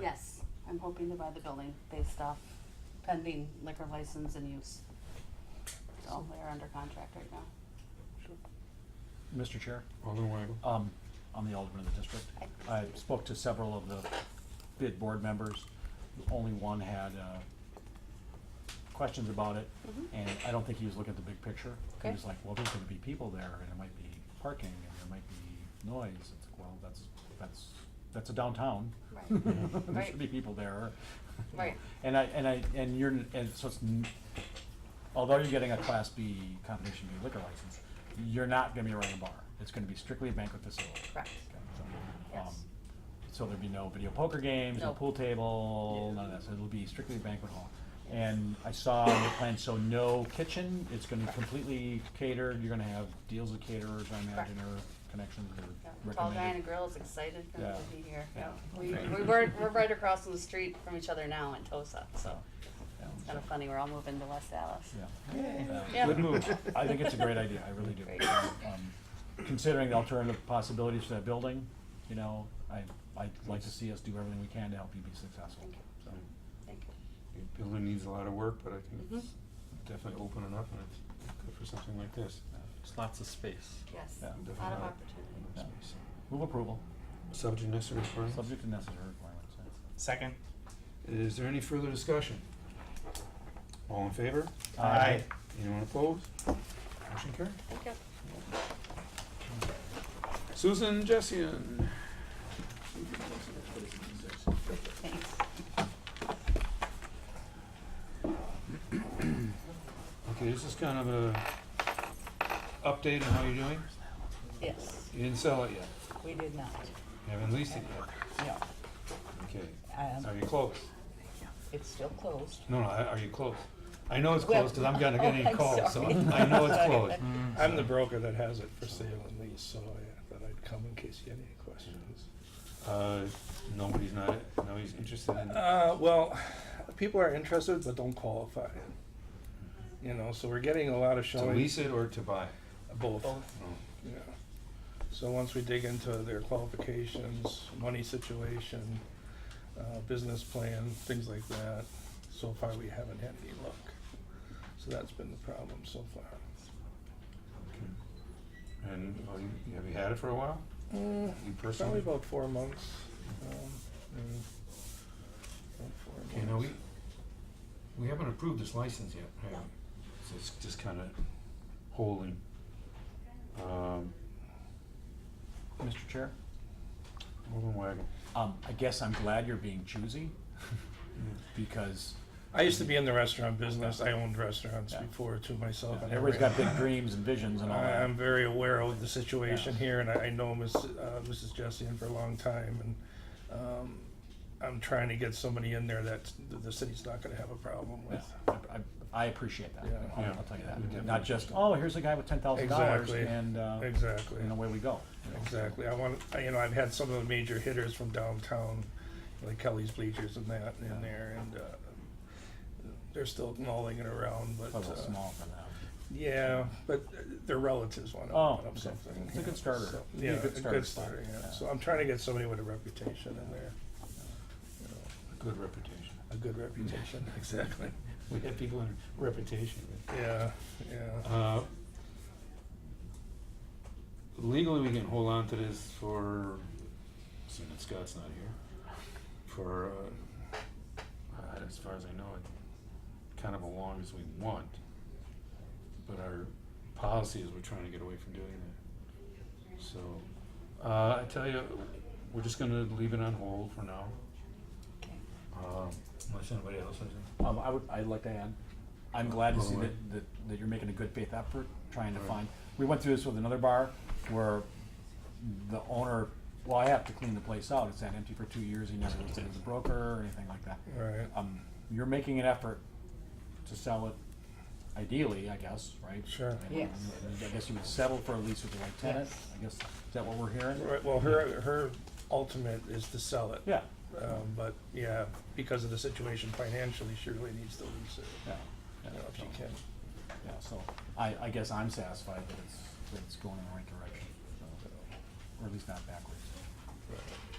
Yes, I'm hoping to buy the building based off pending liquor license and use. So they're under contract right now. Mr. Chair, Alderman Weigl. um, I'm the alderman of the district. I spoke to several of the bid board members. Only one had, uh, questions about it, Mhm. and I don't think he was looking at the big picture. He Okay. was like, well, there's gonna be people there, and it might be parking, and there might be noise. It's like, well, that's, that's, that's a downtown. Right. There Right. should be people there. Right. And I, and I, and you're, and so it's, n- although you're getting a Class B, Combination B liquor license, you're not gonna be running a bar. It's gonna be strictly a banquet facility. Correct. Okay, so, Yes. um, So there'd be no video poker games, no No. pool table, Yeah. none of that, so it'll be strictly a banquet hall. Yes. And I saw on the plan, so no kitchen, it's gonna be completely catered, you're gonna have deals with caterers, I imagine, or connections Yeah, or Tall guy and a recommended. girl is excited for them to Yeah. be here, yeah. Yeah. We, we were, we're right across the street from each other now in Tosa, so Yeah, it's so- kinda funny, we're all moving to West Dallas. Yeah. Yeah. Yeah. Good move. I think it's a great idea, I really do. Great. Um, Considering the alternative possibilities for that building, you know, I, I'd like to see us do everything we can to help you be successful, Thank you. so. Thank you. Your Building needs a lot of work, but I think it's Mhm. Mm-hmm. definitely open enough and it's good for something like this. There's lots of space. Yes, Yeah. a lot Definitely. of opportunity. Yeah. Space. Move approval, Subject necessary for it. subject to necessary requirements. yeah. Second. Is there any further discussion? All in favor? Aye. Anyone opposed? Motion carried. Thank you. Susan Jessian. Thanks. Okay, this is kind of a update on how you're doing. Yes, You didn't sell it yet. we did not, You haven't leased it yet. no, Okay. um, Are you close? it's still closed. No, no, are you close? I know it's Well- close because I'm gonna get Oh, any I'm calls, so sorry. I know it's Sorry. closed. I'm the broker that has it for sale and lease, so I thought I'd come in case you had any questions. Uh, nobody's not, nobody's interested in, Uh, well, people are interested but don't qualify. You know, so we're getting a lot of to showing, lease it or to buy? both, Oh. yeah. So once we dig into their qualifications, money situation, uh, business plan, things like that, so far we haven't had any luck. So that's been the problem so far. Okay. And, oh, you, have you had it for a while? You Uh, Probably personally? about four months. um, mm, about four Okay, now we, months. we haven't approved this license yet, have we? So it's just kinda holding. Um, Mr. Chair, Alderman Wagon. um, I guess I'm glad you're being choosy, because I used to be in the restaurant business. I owned restaurants Yeah. before to myself. and everybody's got everyone. big dreams and visions and all I- that. I'm very aware of the situation here, and I I know Miss, uh, Mrs. Jessian for a long time, and um, I'm trying to get somebody in there that the- the city's not gonna have a problem Yeah, with. I, I- I appreciate that, Yeah. I'll, Yeah. I'll tell you Yeah. that, not just, oh, here's a guy with ten thousand dollars Exactly. and, uh, Exactly. and away we go. you know. Exactly. I want, I- you know, I've had some of the major hitters from downtown, like Kelly's Bleachers and that in there, and uh, they're still mulling it around, but. It's a little uh, small for now. Yeah, but uh, their relatives want to Oh, open up okay. something. It's a yeah, good starter. so- It'd be Yeah, a good a starter good spot, starter, yeah. yeah. So I'm trying to get somebody with a reputation in there, you know, Good reputation. a good Mm. reputation, exactly. We have people in reputation. Yeah, yeah. Uh, Legally, we can hold on to this for, seeing that Scott's not here, for, uh, uh, as far as I know, it kind of as long as we want. But our policy is we're trying to get away from doing that. So, uh, I tell you, we're just gonna leave it on hold for now. Okay. Um, Unless anybody else has any. Um, I would, I'd like to add, I'm glad to see Oh, that, right. that, that you're making a good faith effort, trying to Right. find, we went through this with another bar where the owner, well, I have to clean the place out, it's sat empty for two years, he never listed as a broker or anything like that. Right. Um, you're making an effort to sell it ideally, I guess, right? Sure. I mean, Yes. I guess you would settle for a lease with the right tenant, Yes. I guess, is that what we're hearing? Right, well, her, her ultimate is to sell it. Yeah, Um, But, yeah, because of the situation financially, she really needs to lose it, yeah. you know, if she so- can. Yeah, so I, I guess I'm satisfied that it's, that it's going in the right direction, so, or at least not backwards. Right.